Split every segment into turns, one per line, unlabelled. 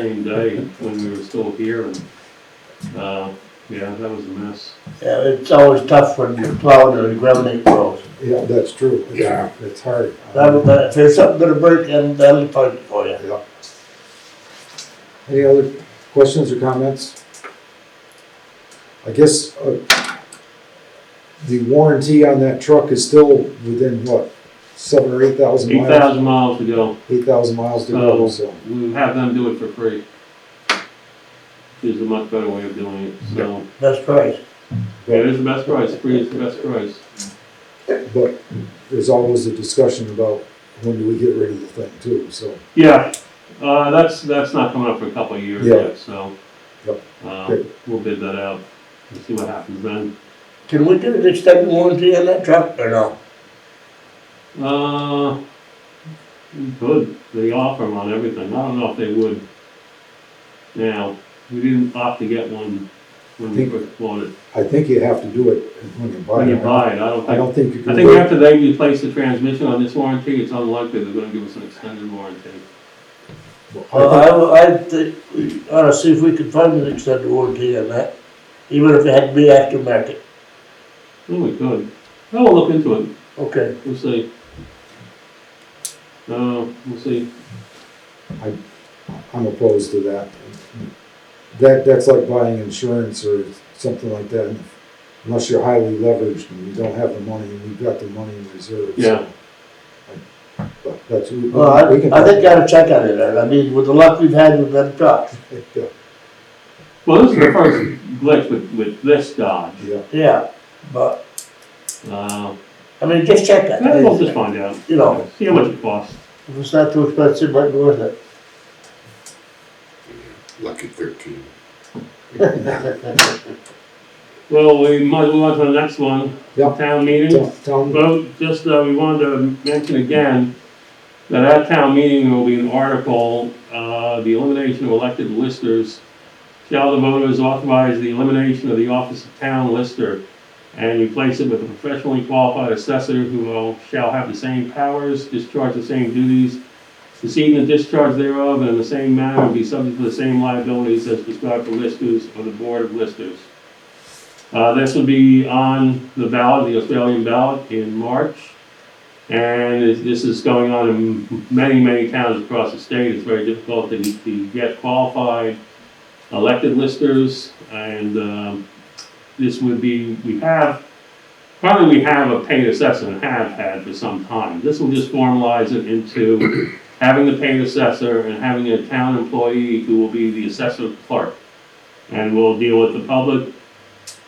same day when we were still here and, uh, yeah, that was a mess.
Yeah, it's always tough when you're plowing and the ground grows.
Yeah, that's true. It's-
Yeah.
It's hard. Um,
That, that, if there's something gonna break, then that'll fight it for you.
Yeah. Any other questions or comments? I guess, uh, the warranty on that truck is still within what, seven or eight thousand
Eight
miles?
thousand miles to go.
Eight thousand miles to
Oh.
go, so.
We have them do it for free. Is a much better way of doing it, so,
That's right.
yeah, it is the best price, free is the best price.
But there's always a discussion about when do we get rid of the thing too, so.
Yeah, uh, that's, that's not coming up for a couple of years
Yeah.
yet, so.
Yep.
Uh,
Good.
we'll bid that out and see what happens then.
Can we do an extended warranty on that truck or no?
Uh, we could, they offer 'em on everything, I don't know if they would. Now, we didn't opt to get one when we
Think-
first bought it,
I think you have to do it when you buy
when you
it.
buy it, I don't
I
think.
don't think you
I
can
think
wait.
after they replace the transmission on this warranty, it's unlikely they're gonna give us an extended warranty.
Well, I, would- I think, we ought to see if we can find an extended warranty on that, even if it had to be aftermarket.
Oh, we could, oh, we'll look into it,
Okay,
we'll see. Uh, we'll see.
I'm opposed to that. That, that's like buying insurance or something like that, unless you're highly leveraged and you don't have the money, and you've got the money in reserve. so-
Yeah.
But that's, we we
well, I,
can.
I think I ought to check on it, and I mean, with the luck we've had with that truck,
Yeah,
Well, this is the first glitch with, with this Dodge,
yeah,
yeah, but,
uh,
I mean, just check that.
yeah, we'll just find out,
You know,
see how much it costs.
if it's not too expensive, it might be worth it.
Lucky thirteen.
Well, we might move on to the next one.
Yeah.
Town meeting.
Tell- tell 'em-
Well, just, uh, we wanted to mention again that at town meeting, there will be an article, uh, the elimination of elected listers. Shall the voters authorize the elimination of the office of town lister and replace it with a professionally qualified assessor who will, shall have the same powers, discharge the same duties, receive the discharge thereof, and in the same manner and be subject to the same liabilities as prescribed for listers or the board of listers. Uh, this will be on the ballot, the Australian ballot in March. And it- this is going on in many, many towns across the state. It's very difficult to, to get qualified elected listers. And, um, this would be, we have, probably we have a paid assessor and have had for some time. This will just formalize it into having the paid assessor and having a town employee who will be the assessor clerk. And will deal with the public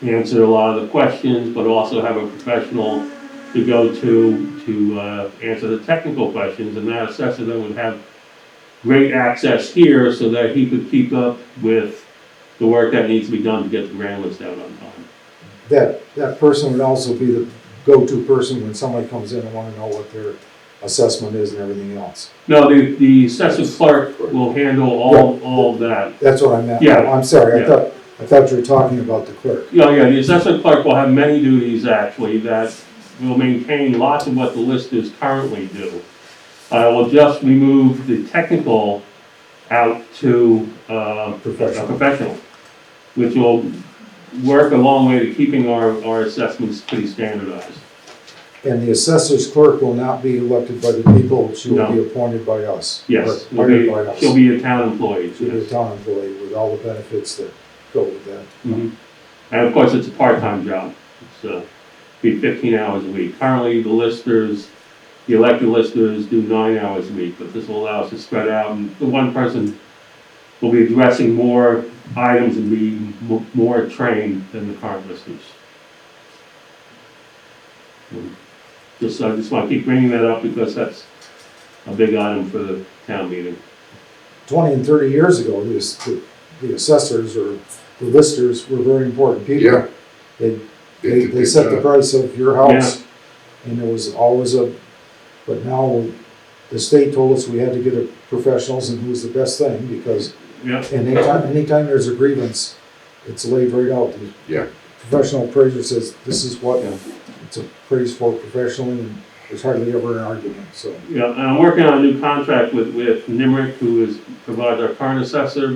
answer a lot of the questions, but also have a professional to go to, to uh, answer the technical questions, and that assessor then would have great access here so that he could keep up with the work that needs to be done to get the grand list out on time.
That, that person would also be the go-to person when somebody comes in and wanna know what their assessment is and everything else.
No, the, the assessor clerk will handle all, all of that.
That's what I meant.
Yeah.
I'm sorry,
Yeah.
I thought, I thought you were talking about the clerk.
Yeah, yeah, the assessor clerk will have many duties actually that will maintain lots of what the listers currently do. I will just remove the technical out to, uh, a
Professional.
professional, which will work a long way to keeping our, our assessments pretty standardized.
And the assessor's clerk will not be elected by the people, she will be
No.
appointed by us.
Yes,
Or
will
Hired
be-
by us.
she'll be a town employee,
She'll be a
yes.
town employee with all the benefits that go with that.
Mhm. And of course, it's a part-time job, it's, uh, be fifteen hours a week. Currently, the listers, the elected listers do nine hours a week, but this will allow us to spread out, and the one person will be addressing more items and be mo- more trained than the current listers. Um, Just, I just wanna keep bringing that up because that's a big item for the town meeting.
Twenty and thirty years ago, the, ass- the- the assessors or the listers were very important
Yeah.
people. They, they,
did
they
good
set the
job.
price of your house, and there was always a, but now, the state told us we had to get a professionals, and who's the best thing, because
Yep,
And anytime, anytime there's a grievance, it's laid right out. The
Yeah.
Professional appraiser says, this is what,
Yeah.
it's appraised for professionally, and there's hardly ever an argument, so.
Yeah, and I'm working on a new contract with, with Nimrick, who is, provides our current assessor,